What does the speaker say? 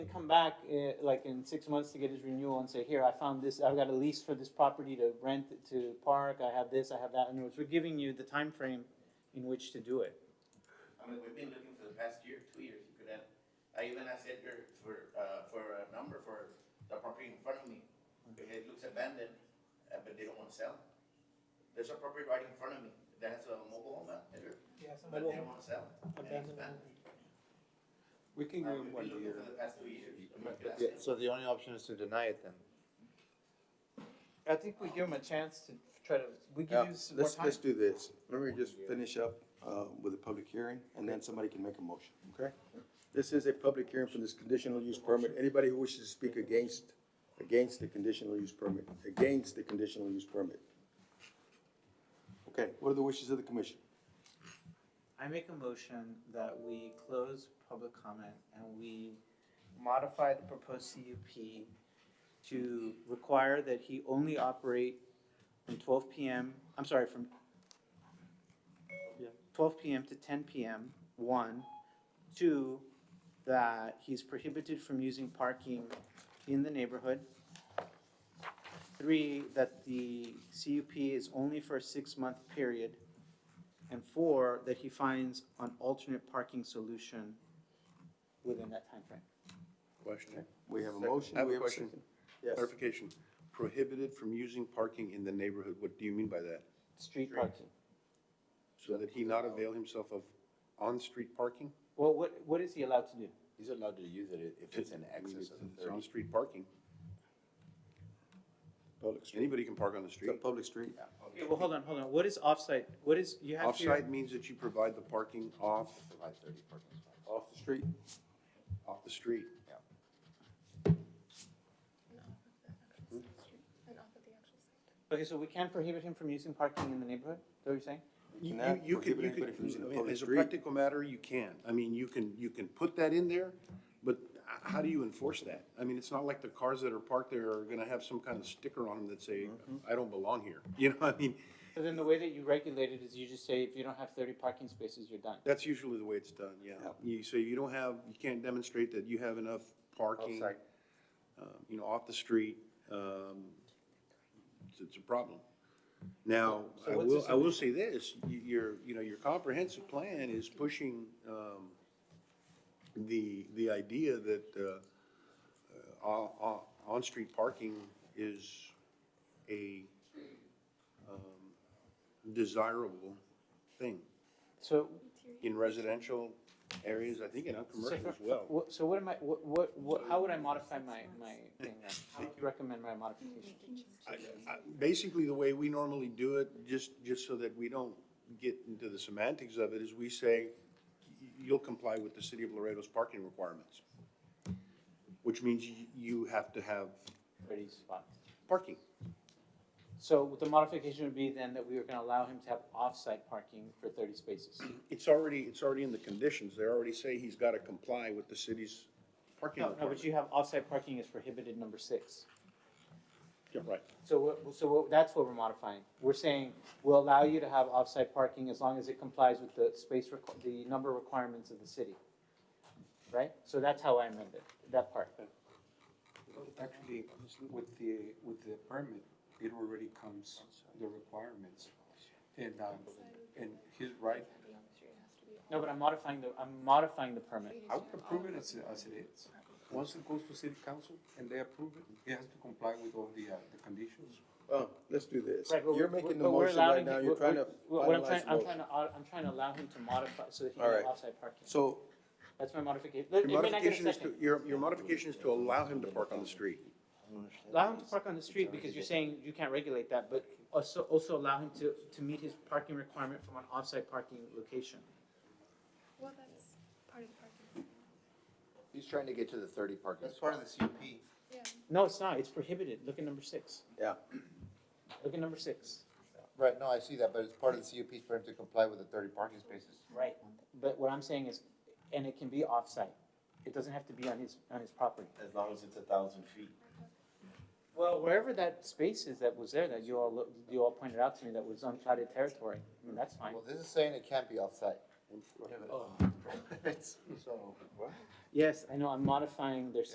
to come back, eh, like in six months to get his renewal and say, here, I found this, I've got a lease for this property to rent it to park, I have this, I have that, and we're giving you the time frame in which to do it. I mean, we've been looking for the past year, two years, you could have, I even I said here for, uh, for a number for the property in front of me. Mm-hmm. It looks abandoned, uh, but they don't wanna sell. There's a property right in front of me that has a mobile home out there, but they don't wanna sell. and Abandoned expand. We can Uh, go We've one been looking year. for the past two years. I'm not Yeah, asking. so the only option is to deny it then? I think we give him a chance to try to, we Yeah, give you some more Let's, time. let's do this. Let me just finish up, uh, with a public hearing and then somebody can make a motion, okay? This is a public hearing for this conditional use permit. Anybody who wishes to speak against, against the conditional use permit, against the conditional use permit. Okay, what are the wishes of the commission? I make a motion that we close public comment and we modify the proposed CUP to require that he only operate from twelve PM, I'm sorry, from twelve PM to ten PM, one. Two, that he's prohibited from using parking in the neighborhood. Three, that the CUP is only for a six-month period. And four, that he finds an alternate parking solution within that timeframe. Question. We have a Second. motion. I have we a question. second. Yes, Clarification. Prohibited from using parking in the neighborhood. What do you mean by that? Street parking. So that he not avail himself of on-street parking? Well, what, what is he allowed to do? He's allowed to use it if it's in excess of It's thirty. on-street parking. public street. Anybody can park on the It's a street. public street. Okay, well, hold on, hold on. What is offsite? What is, you have to. Offside means that you provide the parking off, Provide thirty parking spots. Off the street. off the street. And off of the actual site. Okay, so we can't prohibit him from using parking in the neighborhood? Is that what you're saying? You, cannot you- you could, prohibit you anybody from using a could, I mean, public as a street. practical matter, you can. I mean, you can, you can put that in there, but h- how do you enforce that? I mean, it's not like the cars that are parked there are gonna have some kind of sticker on them that say, Mm-hmm. I don't belong here. You know, I mean, So then the way that you regulate it is you just say if you don't have thirty parking spaces, you're done. that's usually the way it's done, yeah. Yeah. You, so you don't have, you can't demonstrate that you have enough parking, Offsite. um, you know, off the street. um, It's, it's a problem. Now, So I what's the will, I will say this, you, your, you know, your comprehensive plan is pushing, um, the, the idea that, uh, uh, on, on, on-street parking is a, um, desirable thing So, in residential areas, I think, and on so, commercial as for- well. what- so what am I, what, what, what, how would I modify my, my thing then? How would you recommend my modification? I- I- Basically, the way we normally do it, just, just so that we don't get into the semantics of it, is we say, "Y- you'll comply with the city of Laredo's parking requirements. Which means you, you have to have Thirty spots. parking. So the modification would be then that we were gonna allow him to have off-site parking for thirty spaces. Mm-hmm. It's already, it's already in the conditions. They already say he's gotta comply with the city's parking No, no, requirements. but you have off-site parking is prohibited number six. Yeah, Right. So what, so what, that's what we're modifying. We're saying, we'll allow you to have off-site parking as long as it complies with the space requ- the number requirements of the city. Right? So that's how I amended that part. Actually, with the, with the permit, it already comes, the requirements. And, um, and he's right, Be on the street, it has to be on. No, but I'm modifying the, I'm modifying the permit. I would approve it as, as it is. Once it goes to city council and they approve it, it has to comply with all the, uh, the conditions. Well, let's do this. Right, but You're we're- making the but we're motion right allowing now. him- You're we're- trying to we're- What I'm trying, finalize I'm motion. trying to, I'm trying to allow him to modify so that he can All have right. off-site parking. So That's my modification. Your modification is to, your, your modification is to allow him to park on the street. Allow him to park on the street because you're saying you can't regulate that, but also, also allow him to, to meet his parking requirement from an off-site parking location. Well, that's part of the parking. He's trying to get to the thirty parking. That's part of the CUP. Yeah. No, it's not, it's prohibited, look at number six. Yeah. Look at number six. Right, no, I see that, but it's part of the CUP for him to comply with the thirty parking spaces. Right. But what I'm saying is, and it can be off-site, it doesn't have to be on his, on his property. As long as it's a thousand feet. Well, wherever that space is that was there, that you all, look- you all pointed out to me, that was uncharted territory, I mean, that's fine. Well, this is saying it can't be offsite. Oh. So, what? Yes, I know, I'm modifying their